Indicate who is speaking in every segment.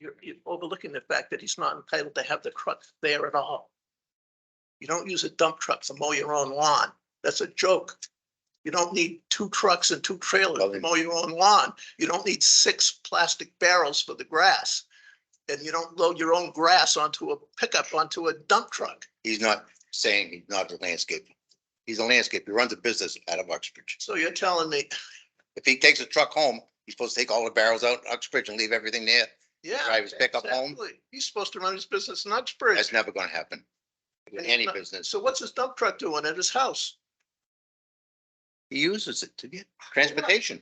Speaker 1: You're, you're overlooking the fact that he's not entitled to have the truck there at all. You don't use a dump truck to mow your own lawn. That's a joke. You don't need two trucks and two trailers to
Speaker 2: Nothing.
Speaker 1: mow your own lawn. You don't need six plastic barrels for the grass. And you don't load your own grass onto a pickup, onto a dump truck.
Speaker 2: He's not saying he's not a landscaper. He's a landscaper. He runs a business out of Uxbridge.
Speaker 1: So you're telling me,
Speaker 2: If he takes a truck home, he's supposed to take all the barrels out in Uxbridge and leave everything there.
Speaker 1: yeah.
Speaker 2: Drive his pickup home?
Speaker 1: exactly. He's supposed to run his business in Uxbridge.
Speaker 2: That's never gonna happen. In
Speaker 1: And
Speaker 2: any
Speaker 1: he's not-
Speaker 2: business,
Speaker 1: So what's his dump truck doing at his house?
Speaker 2: he uses it to get transportation.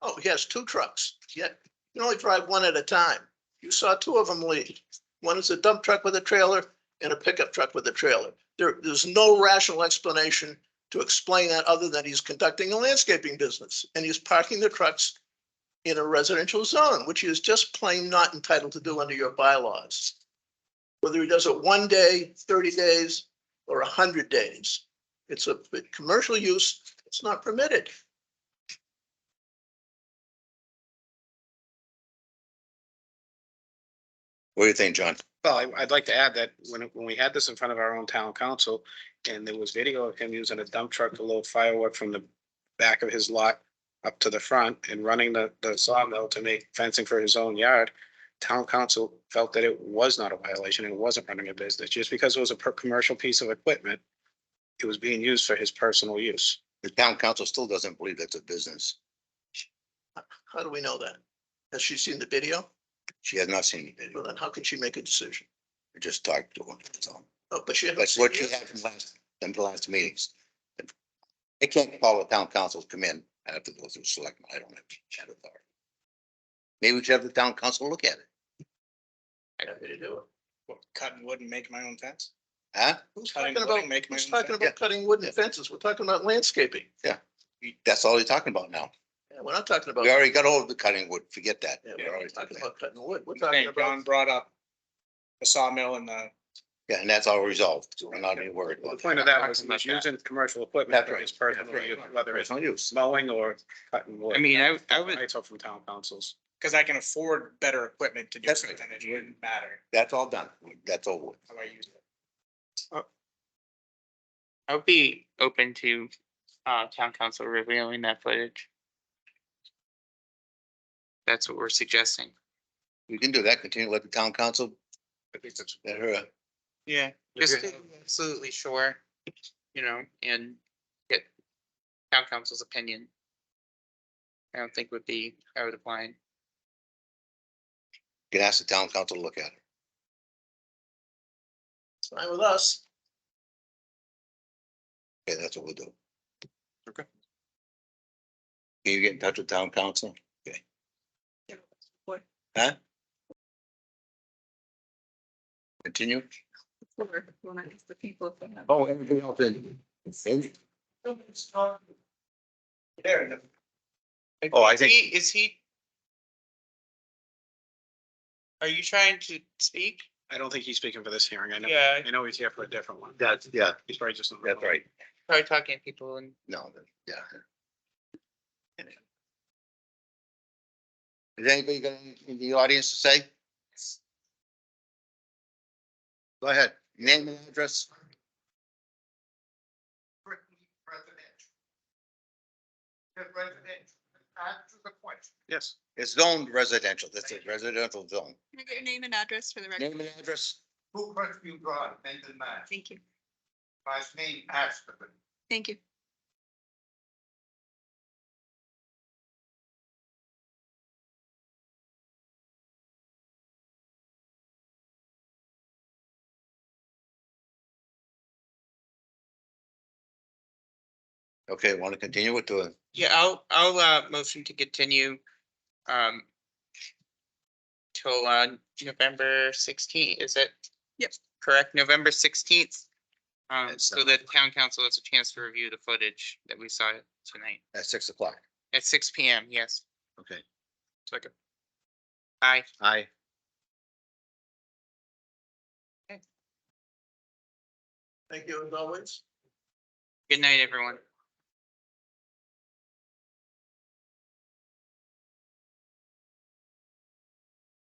Speaker 1: Oh, he has two trucks. Yet you can only drive one at a time. You saw two of them leave. One is a dump truck with a trailer and a pickup truck with a trailer. There, there's no rational explanation to explain that other than he's conducting a landscaping business and he's parking the trucks in a residential zone, which he is just plain not entitled to do under your bylaws. Whether he does it one day, thirty days, or hundred days, it's a but commercial use. It's not permitted.
Speaker 2: What do you think, John?
Speaker 3: Well, I- I'd like to add that when, when we had this in front of our own town council, and there was video of him using a dump truck to load firewood from the back of his lot up to the front and running the, the sawmill to make fencing for his own yard, town council felt that it was not a violation and it wasn't running a business. Just because it was a per- commercial piece of equipment, it was being used for his personal use.
Speaker 2: The town council still doesn't believe that's a business.
Speaker 1: How do we know that? Has she seen the video?
Speaker 2: She has not seen the video.
Speaker 1: Well, then how can she make a decision?
Speaker 2: I just talked to her. That's all.
Speaker 1: Oh, but she. hasn't
Speaker 2: That's
Speaker 1: seen
Speaker 2: what
Speaker 1: the
Speaker 2: you
Speaker 1: video.
Speaker 2: had from last, from the last meetings. They can't call the town council to come in. I have to go through selectmen. I don't have chat authority. Maybe we should have the town council look at it,
Speaker 1: Happy to do it.
Speaker 3: Cutting wood and making my own fence?
Speaker 2: huh?
Speaker 1: Who's
Speaker 3: Cutting
Speaker 1: talking
Speaker 3: wood
Speaker 1: about,
Speaker 3: and making my
Speaker 1: who's
Speaker 3: own
Speaker 1: talking
Speaker 3: fence?
Speaker 1: about cutting wooden fences? We're talking about landscaping.
Speaker 2: That's all he's talking about now.
Speaker 1: Yeah, We're not talking about,
Speaker 2: We
Speaker 1: yeah,
Speaker 2: already got over the cutting wood. Forget that.
Speaker 1: we're
Speaker 2: We're already
Speaker 1: not talking
Speaker 2: through that.
Speaker 1: about cutting wood. We're
Speaker 3: I
Speaker 1: talking
Speaker 3: think John
Speaker 1: about,
Speaker 3: brought up the sawmill and the
Speaker 2: Yeah, and that's all resolved. We're not even worried
Speaker 3: The
Speaker 2: about
Speaker 3: point of that was he was using commercial equipment
Speaker 2: That's
Speaker 3: for
Speaker 2: right.
Speaker 3: his personal
Speaker 2: That's right.
Speaker 3: use, whether it's
Speaker 2: Personal use.
Speaker 3: mowing or cutting wood.
Speaker 4: I mean, I, I would,
Speaker 3: I took from town councils.
Speaker 5: Because I can afford better equipment to do
Speaker 2: That's
Speaker 5: something that it wouldn't matter
Speaker 2: That's all done. That's over. with.
Speaker 5: how I use it.
Speaker 4: I would be open to, uh, town council revealing that footage. That's what we're suggesting.
Speaker 2: We can do that. Continue to let the town council, let her, uh,
Speaker 4: Yeah. Just to be absolutely sure, you know, and get town council's opinion. I don't think would be out of the line.
Speaker 2: can ask the town council to look at it.
Speaker 1: it's fine with us.
Speaker 2: Okay, that's what we'll do. Okay. Can you get in touch with town council? Okay.
Speaker 6: What?
Speaker 2: Huh? Continue.
Speaker 6: Or when I ask the people if they have.
Speaker 2: Oh, everything else in. in- Oh, I
Speaker 4: Is
Speaker 2: think-
Speaker 4: he- Is he? Are you trying to speak?
Speaker 3: I don't think he's speaking for this hearing. I know,
Speaker 4: Yeah.
Speaker 3: I know he's here for a different one.
Speaker 2: That's, yeah,
Speaker 3: He's probably just.
Speaker 2: that's right.
Speaker 4: Probably talking to people and
Speaker 2: No, that- yeah. Is anybody got anything in the audience to say? Go ahead, name and address.
Speaker 3: Yes.
Speaker 2: It's zoned residential, that's a residential zone.
Speaker 6: Can I get your name and address for the record?
Speaker 2: Name and address.
Speaker 5: Who first you brought, Mendon Mass,
Speaker 6: Thank you.
Speaker 5: last name Aspen.
Speaker 6: Thank you.
Speaker 2: Okay, want to continue with the,
Speaker 4: Yeah, I'll, I'll, uh, motion to continue, um, till, uh, November sixteenth, is it?
Speaker 6: Yep.
Speaker 4: Correct, November sixteenth, um,
Speaker 2: At
Speaker 4: so that town council has a chance to review the footage that we saw tonight
Speaker 2: at six o'clock?
Speaker 4: at six P M, yes.
Speaker 2: Okay.
Speaker 4: Second. Aye.
Speaker 2: Aye.
Speaker 1: Thank you as always.
Speaker 4: good night, everyone.